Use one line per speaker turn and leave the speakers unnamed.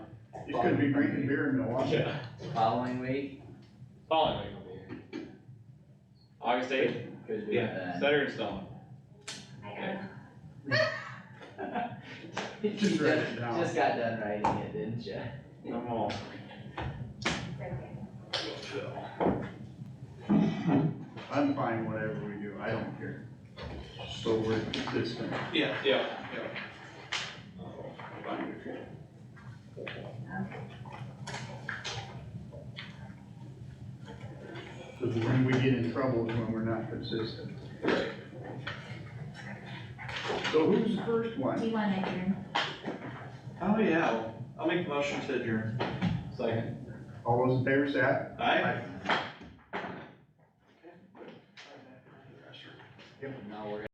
You could be drinking beer in Milwaukee.
Yeah,
Following week,
following week. August eighth,
could do
yeah,
that.
set her in stone. Okay.
You
Just write it
just-
down.
Just got done writing it, didn't you?
I'm all.
I'm fine, whatever we do, I don't care. So we're consistent.
Yeah, yeah,
Cause when we get in trouble is when we're not consistent. So who's the first one?
Do you want to adjourn?
Oh, yeah, I'll make a motion to adjourn.
second.
All those in favor say aye.
Aye.
Now we're